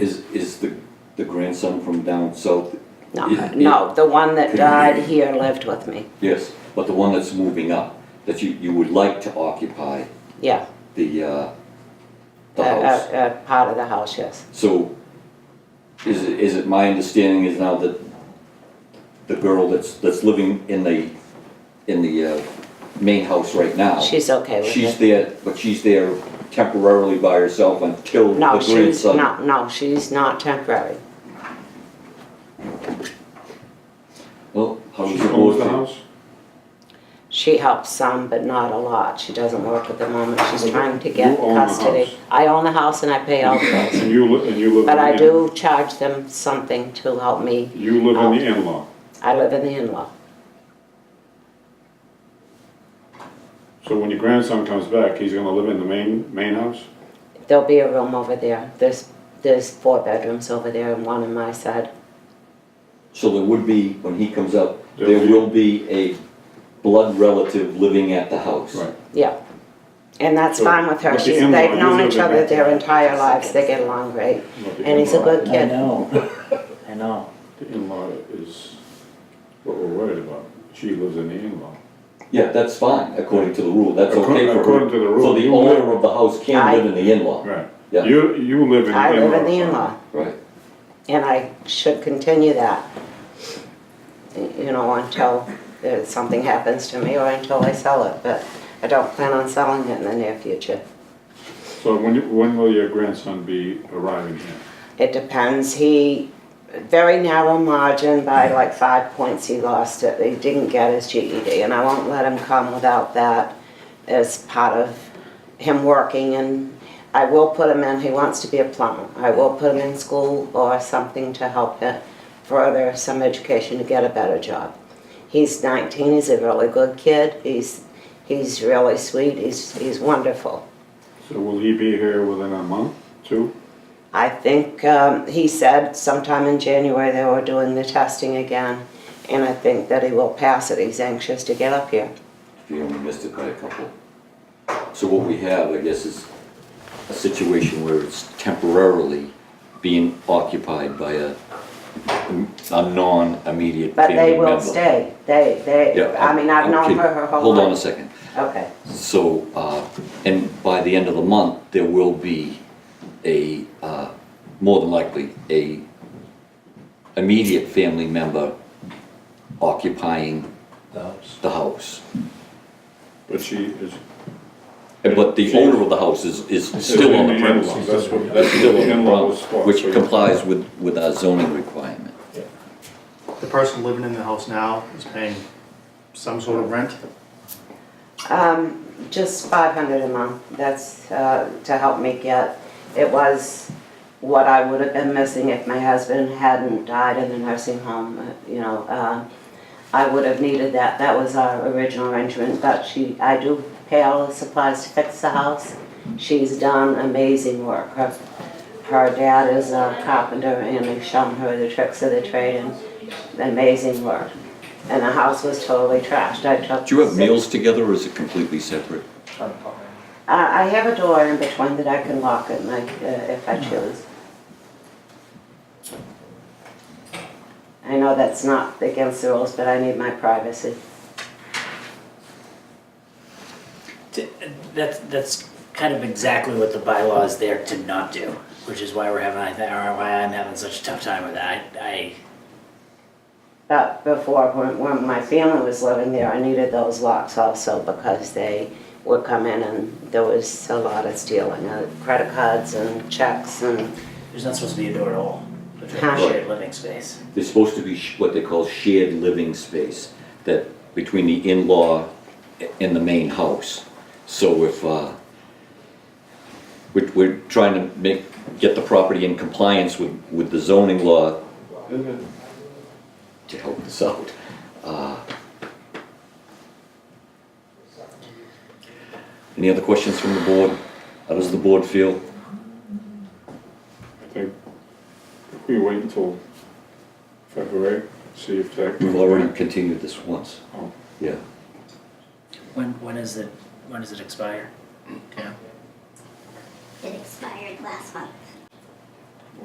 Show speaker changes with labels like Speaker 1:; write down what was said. Speaker 1: Is, is the, the grandson from down south?
Speaker 2: No,
Speaker 1: i-
Speaker 2: no, the one that
Speaker 1: Could
Speaker 2: died
Speaker 1: you-
Speaker 2: here lived with me.
Speaker 1: Yes, but the one that's moving up, that you, you would like to occupy
Speaker 2: Yeah, Uh,
Speaker 1: the, uh,
Speaker 2: a,
Speaker 1: the house.
Speaker 2: a, a part of the house, yes.
Speaker 1: So is, it- is it, my understanding is now that the girl that's, that's living in the, in the, uh, main house right now.
Speaker 2: She's okay with
Speaker 1: Oh. She's
Speaker 2: it.
Speaker 1: there, but she's there temporarily by herself until the
Speaker 2: No, she's,
Speaker 1: grandson.
Speaker 2: no, no, she's not temporary.
Speaker 1: Well, how does
Speaker 3: She
Speaker 1: the
Speaker 3: owns
Speaker 1: board
Speaker 3: the
Speaker 1: feel?
Speaker 3: house?
Speaker 2: She helps some, but not a lot. She doesn't work at the moment. She's trying to get
Speaker 3: You own the
Speaker 2: custody.
Speaker 3: house.
Speaker 2: I own the house and I pay all the bills.
Speaker 3: And you, li- and you live in the...
Speaker 2: But I
Speaker 3: in-
Speaker 2: do charge them something to help me.
Speaker 3: You live in the in-law,
Speaker 2: I live in the in-law.
Speaker 3: so when your grandson comes back, he's gonna live in the main, main house?
Speaker 2: There'll be a room over there. There's, there's four bedrooms over there and one on my side.
Speaker 1: So there would be, when he comes up, there
Speaker 3: There'll be-
Speaker 1: will be a blood relative living at the house.
Speaker 2: Yeah. And that's
Speaker 3: So,
Speaker 2: fine with her.
Speaker 3: but the
Speaker 2: She's,
Speaker 3: in-law,
Speaker 2: they've known
Speaker 3: you
Speaker 2: each
Speaker 3: live
Speaker 2: other
Speaker 3: in-
Speaker 2: their entire lives. They get along great.
Speaker 3: But the
Speaker 2: And he's a
Speaker 3: in-law-
Speaker 2: good
Speaker 4: I
Speaker 2: kid.
Speaker 4: know, I know.
Speaker 3: The in-law is what we're worried about. She lives in the in-law.
Speaker 1: Yeah, that's fine, according to the rule, that's
Speaker 3: According-
Speaker 1: okay for her.
Speaker 3: according to the rule,
Speaker 1: So the
Speaker 3: you
Speaker 1: owner
Speaker 3: live-
Speaker 1: of the house can
Speaker 2: I-
Speaker 1: live in the in-law.
Speaker 3: Right.
Speaker 1: Yeah.
Speaker 3: You, you live in the
Speaker 2: I
Speaker 3: in-law.
Speaker 2: live in the
Speaker 3: apartment.
Speaker 2: in-law
Speaker 1: Right.
Speaker 2: and I should continue that. You know, until uh, something happens to me or until I sell it, but I don't plan on selling it in the near future.
Speaker 3: So when, you- when will your grandson be arriving here?
Speaker 2: It depends. He, very narrow margin by like five points he lost it. He didn't get his GED and I won't let him come without that as part of him working and I will put him in, he wants to be a plumber. I will put him in school or something to help him further some education to get a better job. He's 19, he's a really good kid. He's, he's really sweet, he's, he's wonderful.
Speaker 3: So will he be here within a month, two?
Speaker 2: I think um, he said sometime in January they were doing the testing again, and I think that he will pass it. He's anxious to get up here.
Speaker 1: If you only missed it by a couple. So what we have, I guess, is a situation where it's temporarily being occupied by a, a non-immediate
Speaker 2: But
Speaker 1: family
Speaker 2: they will
Speaker 1: member.
Speaker 2: stay. They, they.
Speaker 1: Yeah,
Speaker 2: I mean, I've known
Speaker 1: okay.
Speaker 2: her her whole
Speaker 1: Hold on a
Speaker 2: life.
Speaker 1: second.
Speaker 2: Okay.
Speaker 1: So, uh, and by the end of the month, there will be a, uh, more than likely, a immediate family member occupying the house.
Speaker 3: But she is...
Speaker 1: And- But the owner of the house is, is still on the
Speaker 3: So
Speaker 1: premises.
Speaker 3: That's what, that's what
Speaker 1: Still on
Speaker 3: the
Speaker 1: the
Speaker 3: in-law was for.
Speaker 1: premises, which
Speaker 3: So you-
Speaker 1: complies with, with our zoning requirement.
Speaker 5: The person living in the house now is paying some sort of rent?
Speaker 2: Um, just five hundred a month. That's uh, to help me get. It was what I would have been missing if my husband hadn't died in the nursing home. uh, You know, uh, I would have needed that. That was our original arrangement. But she, I do pay all the supplies to fix the house. She's done amazing work. Her, her dad is a carpenter, and they've shown her the tricks of the trade and amazing work. And the house was totally trashed. I took.
Speaker 1: Do you have
Speaker 2: six-
Speaker 1: meals together or is it completely separate?
Speaker 2: I I have a door in between that I can lock at night uh, if I choose. I know that's not against the rules, but I need my privacy.
Speaker 6: T- That's, that's kind of exactly what the bylaw is there to not do, which is why we're having, I think, or why I'm having such a tough time with that. I,
Speaker 2: But before, when, when my family was living there, I needed those locks also because they would come in and there was a lot of stealing of credit cards and checks and
Speaker 6: I, there's not supposed to be a door at all, which is
Speaker 2: Huh.
Speaker 6: a shared living space.
Speaker 1: There's supposed to be sh- what they call shared living space, that between the in-law and the main house. So if, uh, we're, we're trying to make, get the property in compliance with, with the zoning law to help us out. Uh, Any other questions from the board? How does the board feel?
Speaker 3: I think if we wait until February, see if that.
Speaker 1: We've already continued this once.
Speaker 3: Oh.
Speaker 1: Yeah.
Speaker 6: When, when is it, when does it expire?
Speaker 7: It expired last month.